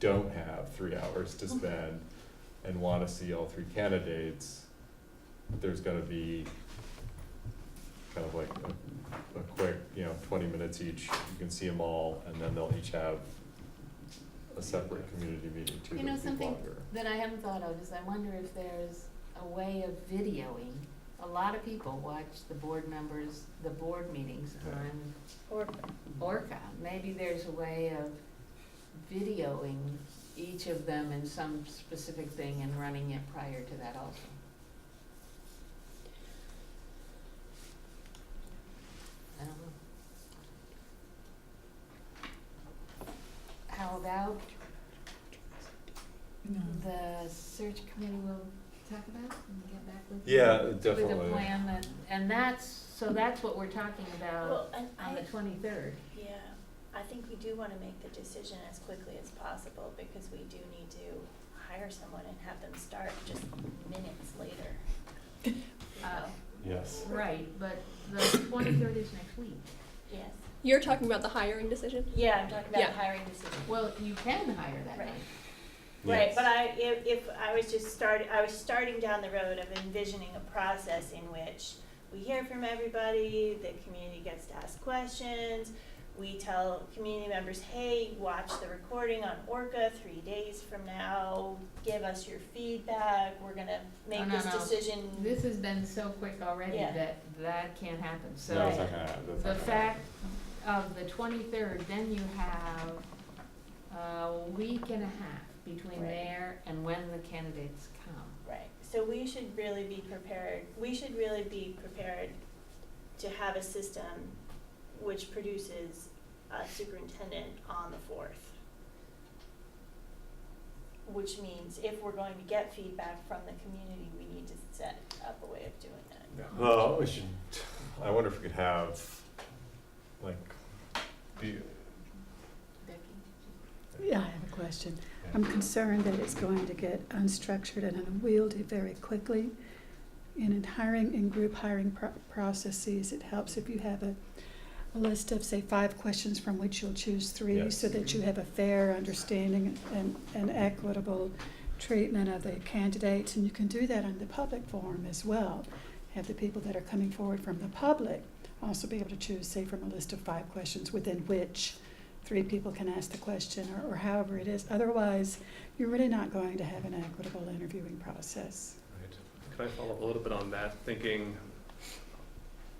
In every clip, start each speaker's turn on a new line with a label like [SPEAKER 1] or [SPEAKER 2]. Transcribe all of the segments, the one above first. [SPEAKER 1] don't have three hours to spend and wanna see all three candidates, there's gonna be kind of like a, a quick, you know, twenty minutes each, you can see them all, and then they'll each have a separate community meeting too,
[SPEAKER 2] You know
[SPEAKER 1] that'll be
[SPEAKER 2] something?
[SPEAKER 1] longer.
[SPEAKER 2] that I haven't thought of is I wonder if there's a way of videoing. A lot of people watch the board members, the board meetings on
[SPEAKER 3] Or,
[SPEAKER 2] Orca. Maybe there's a way of videoing each of them in some specific thing and running it prior to that also. I don't know. How about the search committee will talk about and get back with you?
[SPEAKER 1] Yeah,
[SPEAKER 2] With a
[SPEAKER 1] definitely.
[SPEAKER 2] plan that, and that's, so that's what we're talking about
[SPEAKER 3] well, and
[SPEAKER 2] on
[SPEAKER 3] I,
[SPEAKER 2] the twenty-third.
[SPEAKER 3] yeah, I think we do wanna make the decision as quickly as possible because we do need to hire someone and have them start just minutes later. Um, You
[SPEAKER 2] Uh,
[SPEAKER 3] know?
[SPEAKER 1] Yes.
[SPEAKER 2] right, but the twenty-third is next week.
[SPEAKER 3] Yes,
[SPEAKER 4] You're talking about the hiring decision?
[SPEAKER 3] yeah, I'm talking about
[SPEAKER 4] Yeah.
[SPEAKER 3] hiring decision.
[SPEAKER 2] Well, you can hire that
[SPEAKER 3] Right.
[SPEAKER 2] night.
[SPEAKER 3] Right, but I, if, if I was just start, I was starting down the road of envisioning a process in which we hear from everybody, the community gets to ask questions, we tell community members, hey, watch the recording on Orca three days from now, give us your feedback, we're gonna
[SPEAKER 2] No,
[SPEAKER 3] make
[SPEAKER 2] no,
[SPEAKER 3] this
[SPEAKER 2] no.
[SPEAKER 3] decision.
[SPEAKER 2] This has been so quick already
[SPEAKER 3] Yeah.
[SPEAKER 2] that that can't happen, so.
[SPEAKER 1] No, it's not gonna happen, that's
[SPEAKER 2] The
[SPEAKER 1] not gonna happen.
[SPEAKER 2] fact of the twenty-third, then you have a week and a half between
[SPEAKER 3] Right.
[SPEAKER 2] there and when the candidates come.
[SPEAKER 3] Right, so we should really be prepared, we should really be prepared to have a system which produces a superintendent on the fourth. Which means if we're going to get feedback from the community, we need to set up a way of doing that.
[SPEAKER 1] Well, Oh, we should, I wonder if we could have, like, be,
[SPEAKER 2] Becky?
[SPEAKER 5] Yeah, I have a question. I'm concerned that it's going to get unstructured and unwieldy very quickly. And in hiring, in group hiring pro- processes, it helps if you have a, a list of, say, five questions from which you'll choose three
[SPEAKER 1] Yes.
[SPEAKER 5] so that you have a fair understanding and, and equitable treatment of the candidates. And you can do that on the public forum as well. Have the people that are coming forward from the public also be able to choose, say, from a list of five questions within which three people can ask the question or, or however it is. Otherwise, you're really not going to have an equitable interviewing process.
[SPEAKER 6] Right. Could I follow up a little bit on that, thinking,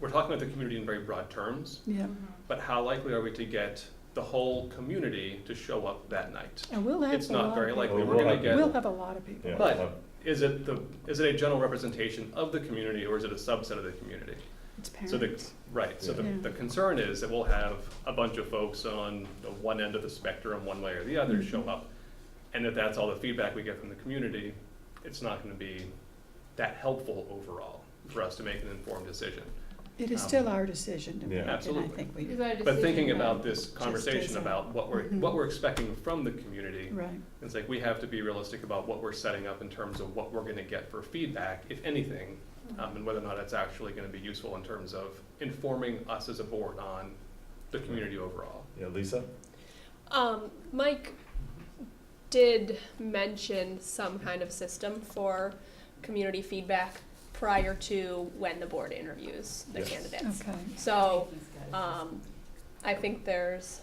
[SPEAKER 6] we're talking about the community in very broad terms,
[SPEAKER 5] Yeah.
[SPEAKER 3] Mm-hmm.
[SPEAKER 6] but how likely are we to get the whole community to show up that night?
[SPEAKER 5] And we'll have
[SPEAKER 6] It's
[SPEAKER 5] a lot
[SPEAKER 6] not very
[SPEAKER 5] of people.
[SPEAKER 6] likely,
[SPEAKER 1] Well,
[SPEAKER 6] we're
[SPEAKER 1] we'll
[SPEAKER 6] gonna
[SPEAKER 1] have-
[SPEAKER 5] We'll
[SPEAKER 6] get,
[SPEAKER 5] have a lot of people.
[SPEAKER 1] yeah,
[SPEAKER 6] But-
[SPEAKER 1] have-
[SPEAKER 6] is it the, is it a general representation of the community, or is it a subset of the community?
[SPEAKER 5] It's
[SPEAKER 6] So the,
[SPEAKER 5] parents.
[SPEAKER 6] right, so the,
[SPEAKER 5] Yeah.
[SPEAKER 6] the concern is that we'll have a bunch of folks on the one end of the spectrum, one way or the other, show
[SPEAKER 5] Mm-hmm.
[SPEAKER 6] up. And if that's all the feedback we get from the community, it's not gonna be that helpful overall for us to make an informed decision.
[SPEAKER 5] It is
[SPEAKER 6] um,
[SPEAKER 5] still our decision to
[SPEAKER 1] Yeah.
[SPEAKER 5] make, and I
[SPEAKER 6] Absolutely.
[SPEAKER 5] think we,
[SPEAKER 2] Is our
[SPEAKER 6] But thinking
[SPEAKER 2] decision
[SPEAKER 6] about
[SPEAKER 2] about-
[SPEAKER 6] this
[SPEAKER 5] as
[SPEAKER 6] conversation
[SPEAKER 5] a-
[SPEAKER 6] about what we're,
[SPEAKER 5] Mhm.
[SPEAKER 6] what we're expecting from the community,
[SPEAKER 5] right.
[SPEAKER 6] it's like we have to be realistic about what we're setting up in terms of what we're gonna get for feedback, if anything,
[SPEAKER 5] Mm-hmm.
[SPEAKER 6] um, and whether or not it's actually gonna be useful in terms of informing us as a board on the community overall.
[SPEAKER 1] Yeah, Lisa?
[SPEAKER 4] Um, Mike did mention some kind of system for community feedback prior to when the board interviews the
[SPEAKER 1] Yes.
[SPEAKER 4] candidates.
[SPEAKER 5] Okay.
[SPEAKER 4] So,
[SPEAKER 2] He's got it.
[SPEAKER 4] um, I think there's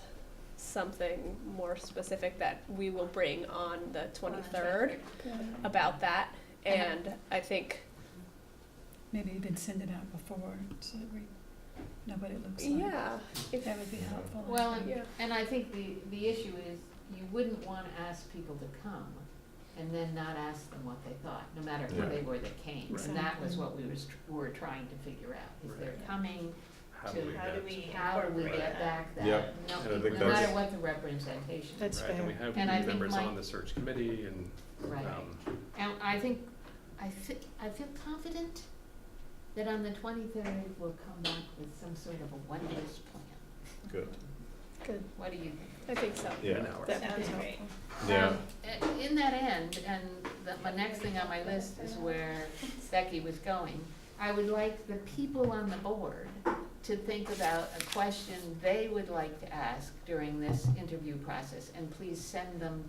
[SPEAKER 4] something more specific that we will bring on the twenty-third
[SPEAKER 5] Good.
[SPEAKER 4] about that.
[SPEAKER 5] Uh-huh.
[SPEAKER 4] And I think,
[SPEAKER 5] Maybe even send it out before so that we know what it looks like.
[SPEAKER 4] yeah, if,
[SPEAKER 5] That would be helpful. I
[SPEAKER 2] Well,
[SPEAKER 5] think.
[SPEAKER 4] yeah.
[SPEAKER 2] And I think the, the issue is, you wouldn't wanna ask people to come and then not ask them what they thought, no matter who
[SPEAKER 1] Right.
[SPEAKER 2] they were that came. And that was
[SPEAKER 5] Exactly.
[SPEAKER 2] what we was, tr- were trying to figure out, is they're
[SPEAKER 3] Mm-hmm. Right.
[SPEAKER 2] coming,
[SPEAKER 6] How do we
[SPEAKER 3] How do
[SPEAKER 6] get-
[SPEAKER 3] we
[SPEAKER 2] how do we
[SPEAKER 3] incorporate
[SPEAKER 2] get
[SPEAKER 3] that?
[SPEAKER 2] back that,
[SPEAKER 1] Yep.
[SPEAKER 2] no,
[SPEAKER 1] And I think
[SPEAKER 2] no matter
[SPEAKER 1] that's-
[SPEAKER 2] what the representation.
[SPEAKER 5] That's
[SPEAKER 6] Right, and we
[SPEAKER 5] fair.
[SPEAKER 6] have
[SPEAKER 2] And I think
[SPEAKER 6] members
[SPEAKER 2] my-
[SPEAKER 6] on the search committee and,
[SPEAKER 2] Right.
[SPEAKER 6] um,
[SPEAKER 2] And I think, I fe- I feel confident that on the twenty-third, we'll come back with some sort of a wondrous plan.
[SPEAKER 1] Good.
[SPEAKER 5] Good.
[SPEAKER 2] What do you think?
[SPEAKER 4] I think so.
[SPEAKER 6] an
[SPEAKER 1] Yeah,
[SPEAKER 6] hour.
[SPEAKER 5] That would be
[SPEAKER 3] Sounds great.
[SPEAKER 5] helpful.
[SPEAKER 1] yeah,
[SPEAKER 2] Um, i- In that end, and the, my next thing on my list is where Becky was going, I would like the people on the board to think about a question they would like to ask during this interview process, and please send them